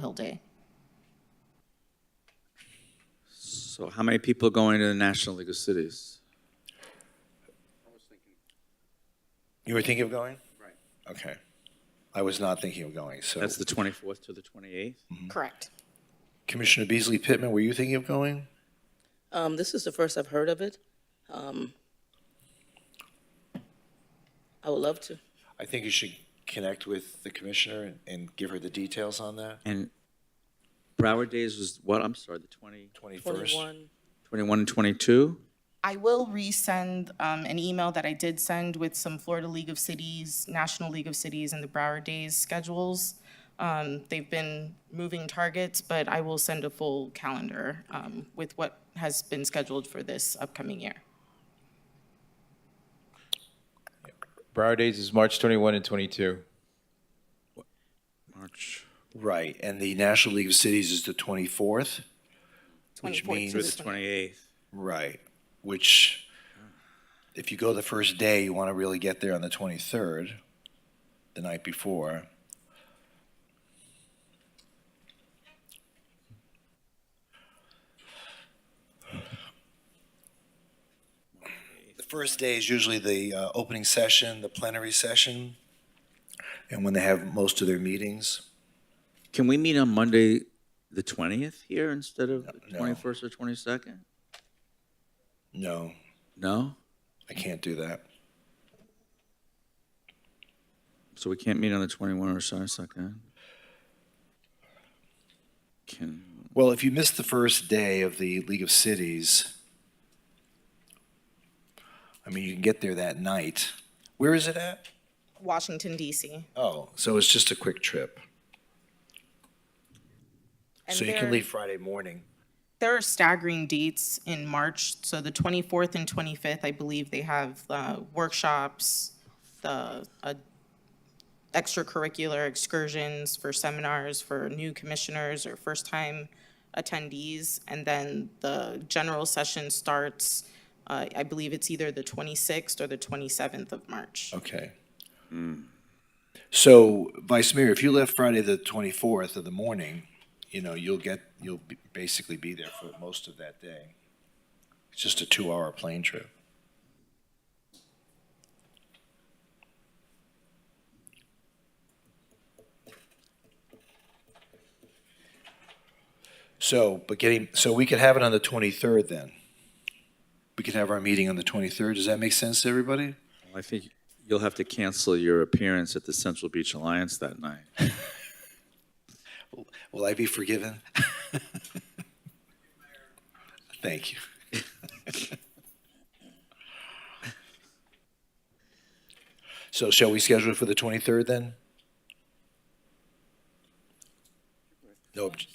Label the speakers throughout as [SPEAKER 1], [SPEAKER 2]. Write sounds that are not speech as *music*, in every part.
[SPEAKER 1] whole day.
[SPEAKER 2] So how many people are going to the National League of Cities?
[SPEAKER 3] You were thinking of going? Right. Okay. I was not thinking of going, so.
[SPEAKER 2] That's the 24th to the 28th?
[SPEAKER 1] Correct.
[SPEAKER 3] Commissioner Beasley Pittman, were you thinking of going?
[SPEAKER 4] Um, this is the first I've heard of it. Um, I would love to.
[SPEAKER 3] I think you should connect with the commissioner and, and give her the details on that.
[SPEAKER 2] And Broward Days was what? I'm sorry, the 20,
[SPEAKER 3] 21st.
[SPEAKER 4] Twenty-one.
[SPEAKER 2] 21 and 22?
[SPEAKER 5] I will resend um, an email that I did send with some Florida League of Cities, National League of Cities, and the Broward Days schedules. Um, They've been moving targets, but I will send a full calendar um, with what has been scheduled for this upcoming year.
[SPEAKER 6] Broward Days is March 21 and 22.
[SPEAKER 2] March.
[SPEAKER 3] Right, and the National League of Cities is the 24th? Which
[SPEAKER 5] 24th to
[SPEAKER 3] means-
[SPEAKER 2] Through the 28th.
[SPEAKER 3] Right, which, if you go the first day, you want to really get there on the 23rd, the night before. The first day is usually the uh, opening session, the plenary session, and when they have most of their meetings.
[SPEAKER 2] Can we meet on Monday, the 20th here instead of the 21st or 22nd?
[SPEAKER 3] No,
[SPEAKER 2] No?
[SPEAKER 3] I can't do that.
[SPEAKER 2] So we can't meet on the 21 or 22nd? Can,
[SPEAKER 3] Well, if you missed the first day of the League of Cities, I mean, you can get there that night. Where is it at?
[SPEAKER 5] Washington DC.
[SPEAKER 3] Oh, so it's just a quick trip.
[SPEAKER 5] And
[SPEAKER 3] so you
[SPEAKER 5] there-
[SPEAKER 3] can leave Friday morning.
[SPEAKER 5] There are staggering dates in March, so the 24th and 25th, I believe they have uh, workshops, the uh, extracurricular excursions for seminars for new commissioners or first-time attendees. And then the general session starts, uh, I believe it's either the 26th or the 27th of March.
[SPEAKER 3] Okay. So, Vice Mayor, if you left Friday the 24th of the morning, you know, you'll get, you'll be- basically be there for most of that day. It's just a two-hour plane trip. So, but getting, so we could have it on the 23rd then. We could have our meeting on the 23rd. Does that make sense to everybody?
[SPEAKER 2] I think you'll have to cancel your appearance at the Central Beach Alliance that night.
[SPEAKER 3] Will I be forgiven? *laughs* Thank you. *laughs* So shall we schedule it for the 23rd then? No, obj-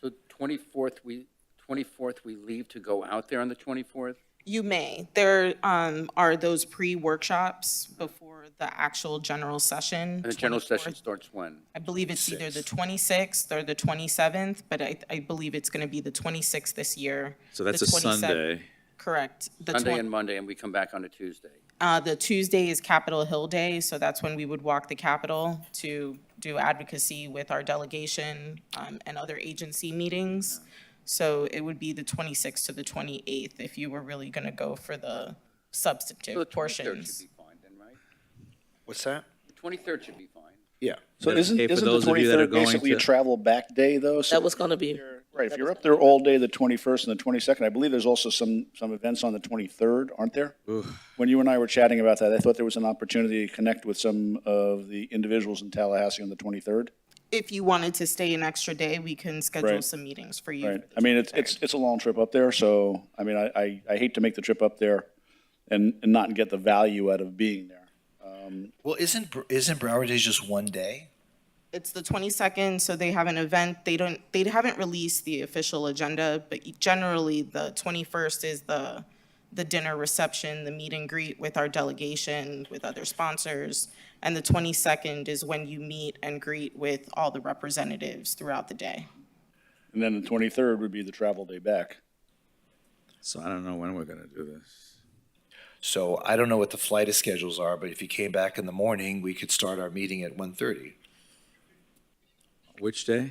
[SPEAKER 7] So 24th, we, 24th, we leave to go out there on the 24th?
[SPEAKER 5] You may. There um, are those pre-workshops before the actual general session.
[SPEAKER 7] And the general
[SPEAKER 5] 24th.
[SPEAKER 7] session starts when?
[SPEAKER 5] I believe it's either the 26th or the 27th, but I, I believe it's going to be the 26th this year.
[SPEAKER 2] So that's
[SPEAKER 5] the
[SPEAKER 2] a
[SPEAKER 5] 27th
[SPEAKER 2] Sunday.
[SPEAKER 5] Correct. The
[SPEAKER 7] Sunday
[SPEAKER 5] twen-
[SPEAKER 7] and Monday, and we come back on a Tuesday.
[SPEAKER 5] uh, The Tuesday is Capitol Hill Day, so that's when we would walk the Capitol to do advocacy with our delegation um, and other agency meetings. So it would be the 26th to the 28th if you were really going to go for the
[SPEAKER 7] So the
[SPEAKER 5] substantive
[SPEAKER 7] 23rd
[SPEAKER 5] portions.
[SPEAKER 7] should be fine then, right?
[SPEAKER 3] what's that?
[SPEAKER 7] The 23rd should be fine.
[SPEAKER 3] Yeah.
[SPEAKER 8] So isn't,
[SPEAKER 2] okay, for
[SPEAKER 8] isn't the
[SPEAKER 2] those of you that are
[SPEAKER 8] twenty-third
[SPEAKER 2] going
[SPEAKER 8] basically a
[SPEAKER 2] to-
[SPEAKER 8] travel back day, though? So
[SPEAKER 4] That was gonna be,
[SPEAKER 8] Right, if you're up there all day, the twenty-first and the twenty-second, I believe there's also some, some events on the twenty-third, aren't there? When you and I were chatting about that, I thought there was an opportunity to connect with some of the individuals in Tallahassee on the twenty-third.
[SPEAKER 5] If you wanted to stay an extra day, we can schedule
[SPEAKER 8] Right.
[SPEAKER 5] some meetings for you.
[SPEAKER 8] Right,
[SPEAKER 5] for the
[SPEAKER 8] I mean, it's, it's, it's a long trip up there, so, I mean, I, I, I hate to make the trip up there and, and not get the value out of being there.
[SPEAKER 3] Well, isn't, Br- isn't Broward Days just one day?
[SPEAKER 5] It's the 22nd, so they have an event. They don't, they haven't released the official agenda, but generally, the 21st is the, the dinner reception, the meet and greet with our delegation, with other sponsors. And the 22nd is when you meet and greet with all the representatives throughout the day.
[SPEAKER 8] And then the twenty-third would be the travel day back.
[SPEAKER 2] So I don't know when we're going to do this.
[SPEAKER 3] So I don't know what the flight schedules are, but if you came back in the morning, we could start our meeting at 1:30.
[SPEAKER 2] Which day?